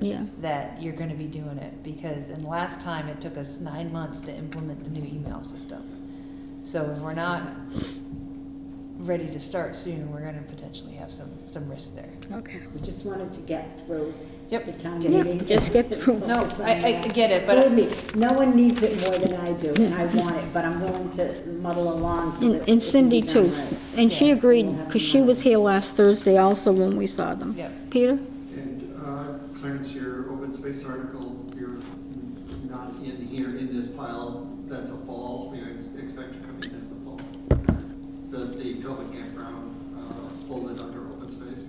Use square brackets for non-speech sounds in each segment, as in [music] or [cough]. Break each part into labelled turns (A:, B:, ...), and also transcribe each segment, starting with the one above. A: Yeah.
B: that you're gonna be doing it, because, and last time it took us nine months to implement the new email system. So if we're not ready to start soon, we're gonna potentially have some, some risk there.
A: Okay.
C: We just wanted to get through
B: Yep.
C: the town
A: Yeah,
C: meeting.
A: just get through.
B: No,
C: Focus on
B: I- I
C: that.
B: get it, but-
C: Believe me, no one needs it more than I do, and I want it, but I'm willing to muddle along so
A: And and
C: that. it can be
A: Cindy
C: done
A: too.
C: right.
A: And she
B: Yeah.
A: agreed, because she was here last Thursday also when we saw them.
B: Yep.
A: Peter?
D: And uh, Clarence, your open space article, you're not in here in this pile, that's a fall, you ex- expect to come in in the fall. The, the Tobin campground uh, folded under open space.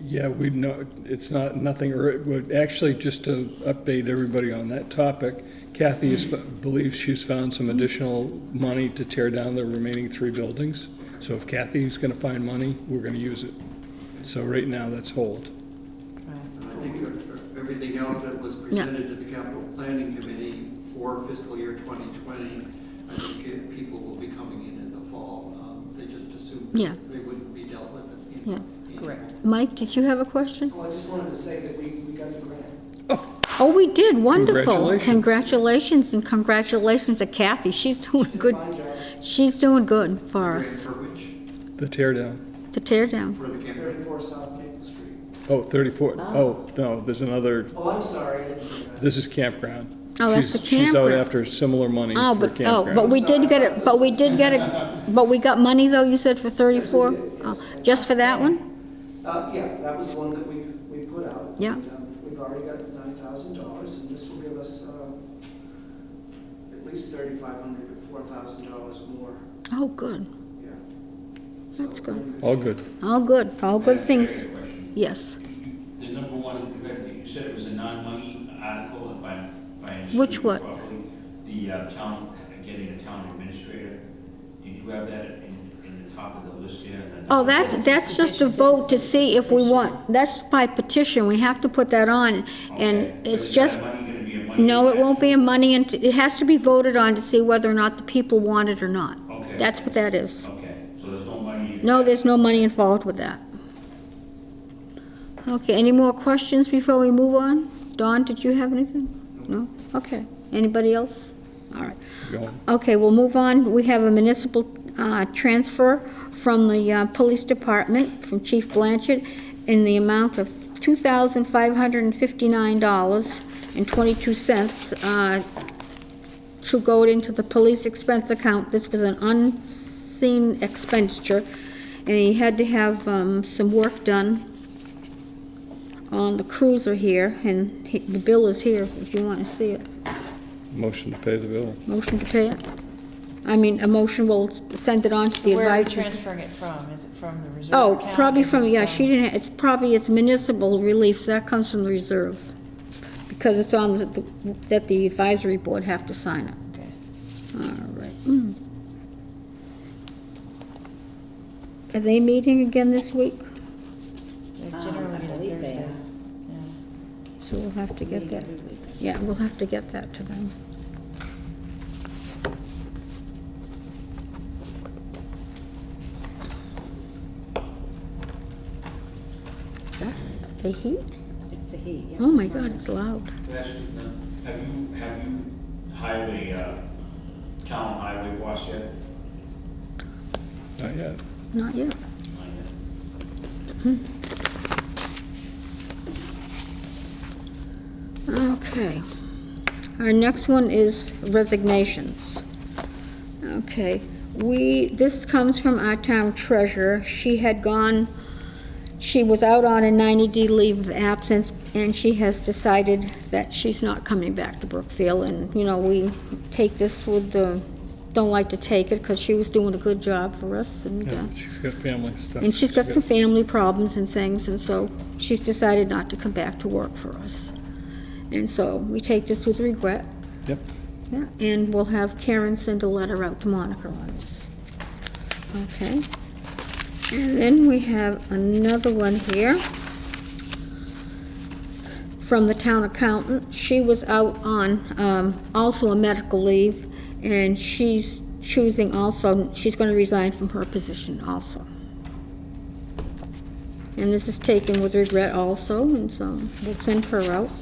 E: Yeah, we know, it's not, nothing, or, well, actually, just to update everybody on that topic, Kathy is, believes she's found some additional money to tear down the remaining three buildings. So if Kathy's gonna find money, we're gonna use it. So right now, that's hold.
D: And I think uh, everything else that was presented to the capital planning committee for fiscal year 2020, I think it- people will be coming in in the fall. Um, They just assumed
A: Yeah.
D: they wouldn't be dealt with in.
A: Yeah.
D: in-
B: Correct.
A: Mike, did you have a question?
F: Well, Oh, I just wanted to say that we, we got the grant.
A: Oh, we did, wonderful.
E: Congratulations.
A: Congratulations, and congratulations to Kathy. She's doing good.
F: Fine job,
A: She's doing good for
D: Grant
A: us,
D: For which,
E: The tear down.
A: to tear down.
D: for the campground.
F: thirty-four South Maple Street.
E: Oh, 34. Oh, no, there's another,
F: Oh, I'm sorry, I didn't hear that.
E: this is campground.
A: Oh, that's
E: She's-
A: the
E: She's out
A: campground.
E: after similar money
A: Oh,
E: for
A: but, oh, but
E: campground.
A: we did get it, but we did get
F: [laughs]
A: it, but we got money though, you said for thirty-four?
F: Yes, we did, yes.
A: Oh, Just for that one?
F: Uh, yeah, that was one that we, we put out.
A: Yeah.
F: And, um, We've already got nine thousand dollars, and this will give us, uh, at least thirty-five hundred to four thousand dollars more,
A: Oh, good.
F: yeah.
A: That's good.
E: All good.
A: All good, all good
G: Madam Chair, I
A: things.
G: have a question.
A: Yes.
G: The number one, you had- you said it was a non-money article, if I, if I understood
A: Which
G: you
A: what?
G: properly. The uh, town, getting a town administrator, did you have that in, in the top of the list there? The
A: Oh,
G: number
A: that,
G: one?
A: that's just a vote to see if we want, that's by petition, we have to put that on. And
G: Okay.
A: it's
G: Is that
A: just,
G: money gonna be a money
A: no, it won't be a
G: action?
A: money, and it has to be voted on to see whether or not the people want it or not.
G: Okay.
A: That's what that is.
G: Okay, so there's no money?
A: No, there's no money involved with that. Okay, any more questions before we move on? Dawn, did you have anything? No? Okay. Anybody else? All right.
E: Go.
A: Okay, we'll move on. We have a municipal uh, transfer from the uh, Police Department, from Chief Blanchard, in the amount of $2,559.22 uh, to go into the police expense account. This was an unseen expenditure, and he had to have um, some work done on the cruiser here, and he- the bill is here if you want to see it.
E: Motion to pay the bill.
A: Motion to pay it? I mean, a motion will send it on to the
B: Where are you
A: advisory.
B: transferring it from? Is it from the reserve
A: Oh,
B: account?
A: probably
B: Is it
A: from, yeah, she didn't, it's probably, it's municipal relief, so that comes from the reserve. Because it's on, the- that the advisory board have to sign it.
B: Okay.
A: All right. Mm. Are they meeting again this week?
B: They
C: Um,
B: generally meet
C: I
B: on
C: believe they are.
B: Thursdays. Yeah.
A: So we'll have to get that,
C: Every week.
A: yeah, we'll have to get that to them. The heat?
C: It's the heat, yeah.
A: Oh my God, it's loud.
G: Can I ask you, uh, Have you, have you hired a, uh, town highway boss yet?
E: Not yet.
A: Not yet.
G: Not yet.
A: Okay. Our next one is resignations. Okay, we, this comes from our town treasurer. She had gone, she was out on a 90-day leave of absence, and she has decided that she's not coming back to Brookfield. And, you know, we take this with the, don't like to take it, because she was doing a good job for us, and, uh,
E: Yeah, she's got family stuff.
A: and she's got some family problems and things, and so she's decided not to come back to work for us. And so we take this with regret,
E: Yep.
A: yeah, and we'll have Karen send a letter out to Monica on this. Okay. And then we have another one here from the town accountant. She was out on, um, also a medical leave, and she's choosing also, she's gonna resign from her position also. And this is taken with regret also, and so it's in her out.